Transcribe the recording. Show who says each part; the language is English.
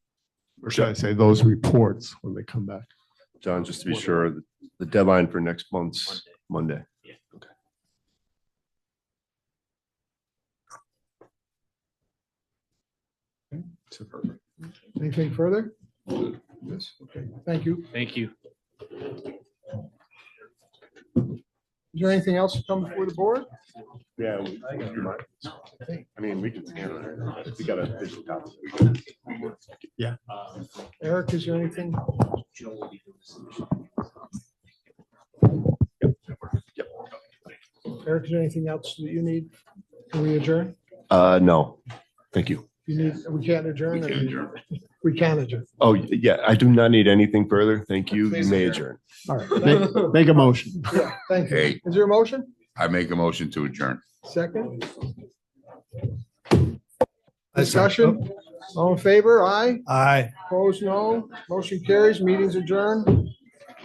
Speaker 1: or should I say those reports when they come back?
Speaker 2: John, just to be sure, the deadline for next month's Monday.
Speaker 1: Anything further? Yes, okay, thank you.
Speaker 3: Thank you.
Speaker 1: Is there anything else to come before the board?
Speaker 2: Yeah. we- I mean, we can scan it. We got a digital copy.
Speaker 1: Eric, is there anything? Eric, is there anything else that you need? Can we adjourn?
Speaker 2: Uh, no, thank you.
Speaker 1: You need, we can't adjourn. We can adjourn.
Speaker 2: Oh, yeah, I do not need anything further. Thank you. You
Speaker 3: Please
Speaker 2: may
Speaker 3: adjourn.
Speaker 2: adjourn.
Speaker 1: All right. Make- Make a motion. Yeah, thank you.
Speaker 4: Hey.
Speaker 1: Is there a motion?
Speaker 4: I make a motion to adjourn.
Speaker 1: Second? Discussion? All in favor? Aye.
Speaker 5: Aye.
Speaker 1: Opposed? No. Motion carries. Meeting's adjourned.